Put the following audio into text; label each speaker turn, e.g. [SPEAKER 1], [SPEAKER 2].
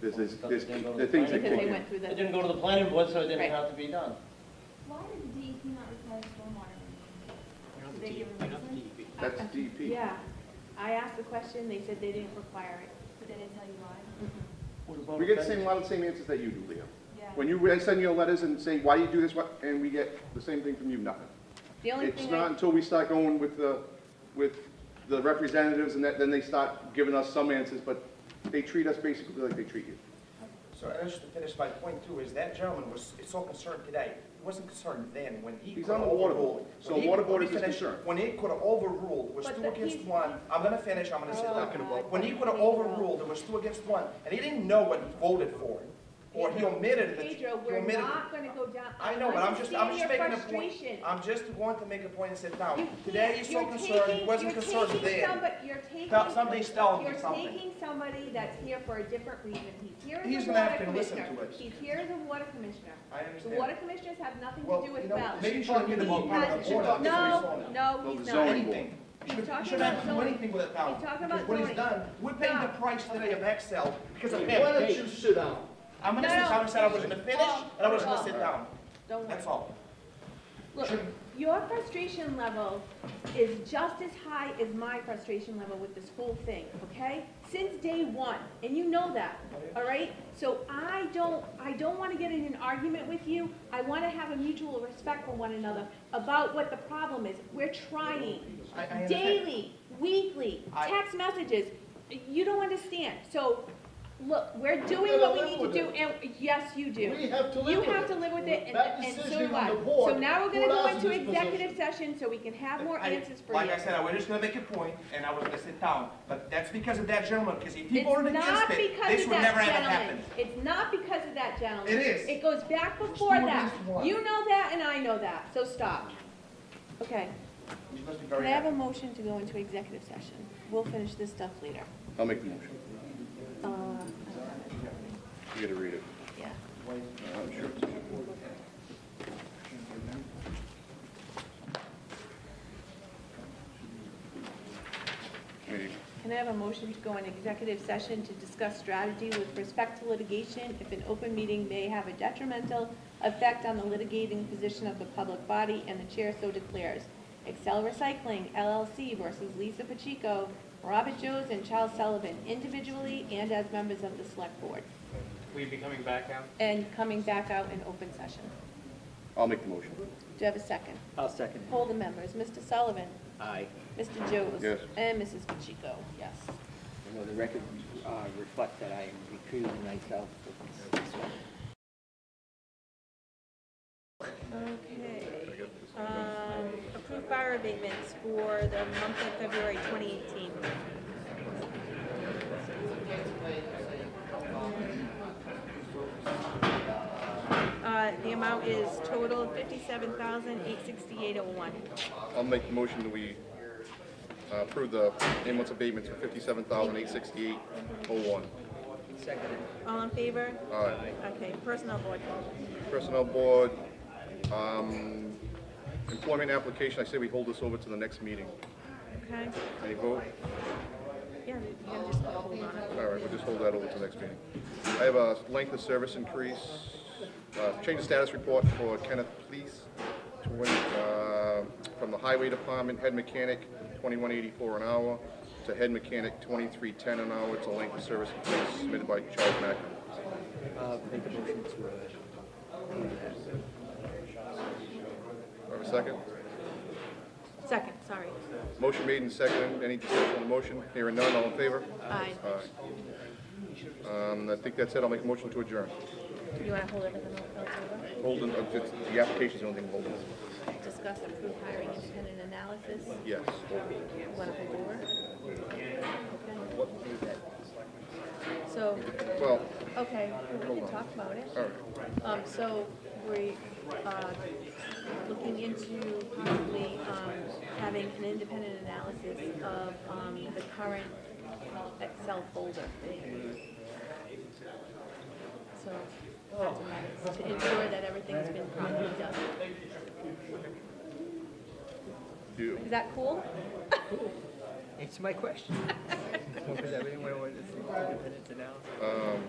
[SPEAKER 1] There's, there's,
[SPEAKER 2] Because
[SPEAKER 1] there's
[SPEAKER 2] they go to
[SPEAKER 1] the things
[SPEAKER 2] the
[SPEAKER 1] that
[SPEAKER 2] planning
[SPEAKER 3] Because they
[SPEAKER 1] kick
[SPEAKER 3] went
[SPEAKER 1] in.
[SPEAKER 3] through
[SPEAKER 2] It
[SPEAKER 3] the,
[SPEAKER 2] didn't go to the planning board, so it didn't
[SPEAKER 3] Right.
[SPEAKER 2] have to be done.
[SPEAKER 4] Why does the DEP not require stormwater? removal?
[SPEAKER 5] You're not
[SPEAKER 4] Did
[SPEAKER 5] the
[SPEAKER 4] they
[SPEAKER 5] D-
[SPEAKER 4] give a
[SPEAKER 5] you're not the
[SPEAKER 4] reason?
[SPEAKER 5] DEP.
[SPEAKER 1] That's
[SPEAKER 3] I- I-
[SPEAKER 1] DEP.
[SPEAKER 3] yeah, I asked the question, they said they didn't require it.
[SPEAKER 4] But they didn't tell you why?
[SPEAKER 2] What about
[SPEAKER 1] We get the
[SPEAKER 2] offense?
[SPEAKER 1] same, a lot of the same answers that you do, Leo.
[SPEAKER 4] Yeah.
[SPEAKER 1] When you, I send you letters and say, why do you do this, what, and we get the same thing from you, nothing.
[SPEAKER 3] The only
[SPEAKER 1] It's
[SPEAKER 3] thing
[SPEAKER 1] not
[SPEAKER 3] I,
[SPEAKER 1] until we start going with the, with the representatives and that, then they start giving us some answers, but they treat us basically like they treat you.
[SPEAKER 6] So I just to finish my point too, is that gentleman was so concerned today, he wasn't concerned then when he
[SPEAKER 1] He's
[SPEAKER 6] could have
[SPEAKER 1] on the water board,
[SPEAKER 6] overruled.
[SPEAKER 1] so
[SPEAKER 6] when he-
[SPEAKER 1] water board
[SPEAKER 6] let me
[SPEAKER 1] is his
[SPEAKER 6] finish.
[SPEAKER 1] concern.
[SPEAKER 6] When it could have overruled, it was
[SPEAKER 3] But
[SPEAKER 6] two
[SPEAKER 3] the-
[SPEAKER 6] against
[SPEAKER 3] he's-
[SPEAKER 6] one, I'm gonna finish, I'm gonna sit
[SPEAKER 3] Oh,
[SPEAKER 6] down.
[SPEAKER 3] Talking about-
[SPEAKER 6] When he could have
[SPEAKER 3] Pedro.
[SPEAKER 6] overruled, it was two against one, and he didn't know what he voted for, or he omitted it. He
[SPEAKER 3] Pedro, we're
[SPEAKER 6] omitted it.
[SPEAKER 3] not gonna go down.
[SPEAKER 6] I know, but I'm just, I'm just
[SPEAKER 3] understand your
[SPEAKER 6] making a point.
[SPEAKER 3] frustration.
[SPEAKER 6] I'm just wanting to make a point and sit
[SPEAKER 3] You
[SPEAKER 6] down.
[SPEAKER 3] can't-
[SPEAKER 6] Today he's so
[SPEAKER 3] you're
[SPEAKER 6] concerned, he
[SPEAKER 3] taking-
[SPEAKER 6] wasn't
[SPEAKER 3] you're
[SPEAKER 6] concerned
[SPEAKER 3] taking
[SPEAKER 6] then.
[SPEAKER 3] somebody- You're taking.
[SPEAKER 6] Tell- Somebody's telling him something.
[SPEAKER 3] You're taking somebody that's here for a different reason. He's here
[SPEAKER 6] He's
[SPEAKER 3] as a
[SPEAKER 6] gonna have
[SPEAKER 3] water
[SPEAKER 6] to listen
[SPEAKER 3] commissioner.
[SPEAKER 6] to us.
[SPEAKER 3] He's here as a water commissioner.
[SPEAKER 6] I
[SPEAKER 3] The
[SPEAKER 6] understand.
[SPEAKER 3] water commissioners have nothing
[SPEAKER 6] Well,
[SPEAKER 3] to do
[SPEAKER 6] you
[SPEAKER 3] with
[SPEAKER 6] know,
[SPEAKER 3] Bells.
[SPEAKER 6] maybe you shouldn't be the one part of the
[SPEAKER 3] He
[SPEAKER 6] board.
[SPEAKER 3] has- No,
[SPEAKER 1] Well,
[SPEAKER 3] no,
[SPEAKER 1] the
[SPEAKER 3] he's
[SPEAKER 1] zoning
[SPEAKER 3] not.
[SPEAKER 6] anything. You should,
[SPEAKER 3] talking
[SPEAKER 6] you should
[SPEAKER 3] about
[SPEAKER 6] not do
[SPEAKER 3] zoning.
[SPEAKER 6] anything with it now.
[SPEAKER 3] He's talking about
[SPEAKER 6] Because What
[SPEAKER 3] zoning.
[SPEAKER 6] he's done, we're paying the
[SPEAKER 3] Stop.
[SPEAKER 6] price today of Excel because of him.
[SPEAKER 5] Why don't you sit down?
[SPEAKER 6] I'm gonna
[SPEAKER 3] No,
[SPEAKER 6] sit
[SPEAKER 3] no.
[SPEAKER 6] down and said I was gonna finish, and I was gonna sit down.
[SPEAKER 3] Don't worry.
[SPEAKER 6] That's all.
[SPEAKER 3] Look,
[SPEAKER 6] Shouldn't-
[SPEAKER 3] your frustration level is just as high as my frustration level with this whole thing, okay? Since day one, and you know that, all right? So I don't, I don't wanna get in an argument with you. I wanna have a mutual respect for one another about what the problem is. We're trying
[SPEAKER 6] I, I understand.
[SPEAKER 3] daily, weekly,
[SPEAKER 6] I-
[SPEAKER 3] text messages. You don't understand. So, look, we're doing what we
[SPEAKER 5] live
[SPEAKER 3] need
[SPEAKER 5] with
[SPEAKER 3] to do,
[SPEAKER 5] it.
[SPEAKER 3] and, yes, you do.
[SPEAKER 5] We have to live
[SPEAKER 3] You
[SPEAKER 5] with
[SPEAKER 3] have
[SPEAKER 5] it.
[SPEAKER 3] to live with it, and,
[SPEAKER 5] That
[SPEAKER 3] and so
[SPEAKER 5] decision
[SPEAKER 3] do
[SPEAKER 5] on
[SPEAKER 3] I.
[SPEAKER 5] the board
[SPEAKER 3] So now we're gonna
[SPEAKER 5] put
[SPEAKER 3] go
[SPEAKER 5] us in
[SPEAKER 3] into
[SPEAKER 5] this position.
[SPEAKER 3] executive session so we can have more
[SPEAKER 6] I-
[SPEAKER 3] answers for you.
[SPEAKER 6] Like I said, I was just gonna make a point, and I was gonna sit down, but that's because of that gentleman, because if he
[SPEAKER 3] It's
[SPEAKER 6] voted
[SPEAKER 3] not
[SPEAKER 6] against it,
[SPEAKER 3] because
[SPEAKER 6] this
[SPEAKER 3] of
[SPEAKER 6] would
[SPEAKER 3] that
[SPEAKER 6] never have
[SPEAKER 3] gentleman.
[SPEAKER 6] happened.
[SPEAKER 3] It's not because of that gentleman.
[SPEAKER 6] It is.
[SPEAKER 3] It goes back before
[SPEAKER 6] There's no
[SPEAKER 3] that.
[SPEAKER 6] reason why.
[SPEAKER 3] You know that and I know that, so stop. Okay,
[SPEAKER 6] You must be
[SPEAKER 3] can
[SPEAKER 6] very
[SPEAKER 3] I have a
[SPEAKER 6] happy.
[SPEAKER 3] motion to go into executive session? We'll finish this stuff later.
[SPEAKER 1] I'll make the motion.
[SPEAKER 3] Uh, I don't have it.
[SPEAKER 1] You gotta read it.
[SPEAKER 3] Yeah.
[SPEAKER 1] I mean,
[SPEAKER 3] Can I have a motion to go in executive session to discuss strategy with respect to litigation if an open meeting may have a detrimental effect on the litigating position of the public body and the chair so declares? Excel Recycling LLC versus Lisa Pacheco, Robert Joes, and Charles Sullivan individually and as members of the select board,
[SPEAKER 5] Will you be coming back out?
[SPEAKER 3] and coming back out in open session.
[SPEAKER 1] I'll make the motion.
[SPEAKER 3] Do you have a second?
[SPEAKER 5] I'll second.
[SPEAKER 3] Poll the members. Mr. Sullivan,
[SPEAKER 5] Aye.
[SPEAKER 3] Mr. Joes.
[SPEAKER 1] Yes.
[SPEAKER 3] And Mrs. Pacheco, yes.
[SPEAKER 7] I know the record uh, reflect that I am recusing myself from this one.
[SPEAKER 8] Okay. Um, Approved fire abatements for the month of February 2018. Uh, The amount is total $57,868.01.
[SPEAKER 1] I'll make the motion that we uh, approve the ambulance abatements for fifty-seven thousand eight sixty-eight oh one.
[SPEAKER 8] All in favor?
[SPEAKER 1] All right,
[SPEAKER 8] Okay, personnel board.
[SPEAKER 1] personnel board, um, employment application, I say we hold this over to the next meeting.
[SPEAKER 8] Okay,
[SPEAKER 1] Any vote?
[SPEAKER 8] yeah, you can just hold on. it.
[SPEAKER 1] All right, we'll just hold that over to the next meeting. I have a length of service increase, uh, change of status report for Kenneth Pleas, twen- uh, from the Highway Department, head mechanic, twenty-one eighty-four an hour, to head mechanic, twenty-three ten an hour. It's a length of service increase submitted by Charles Mack.
[SPEAKER 7] Uh, Make a motion to uh,
[SPEAKER 1] Do I have a second?
[SPEAKER 8] Second, sorry.
[SPEAKER 1] Motion made and seconded. Any discussion on the motion? Hearing none, all in favor?
[SPEAKER 8] Aye.
[SPEAKER 1] All right. Um, I think that's it. I'll make a motion to adjourn.
[SPEAKER 8] Do you want to hold everything else over?
[SPEAKER 1] Holden, uh, it's- the application's the only thing holding.
[SPEAKER 8] discuss approved hiring independent analysis,
[SPEAKER 1] Yes.
[SPEAKER 8] one of the four. So,
[SPEAKER 1] Well,
[SPEAKER 8] okay, we can talk about it.
[SPEAKER 1] all right.
[SPEAKER 8] Um, so we, uh, looking into possibly, um, having an independent analysis of, um, the current Excel folder. So, that's what matters, to ensure that everything's been properly done.
[SPEAKER 1] Do,
[SPEAKER 8] Is that cool?
[SPEAKER 7] answer my question. Because everyone wanted to see the independence analysis.
[SPEAKER 1] um,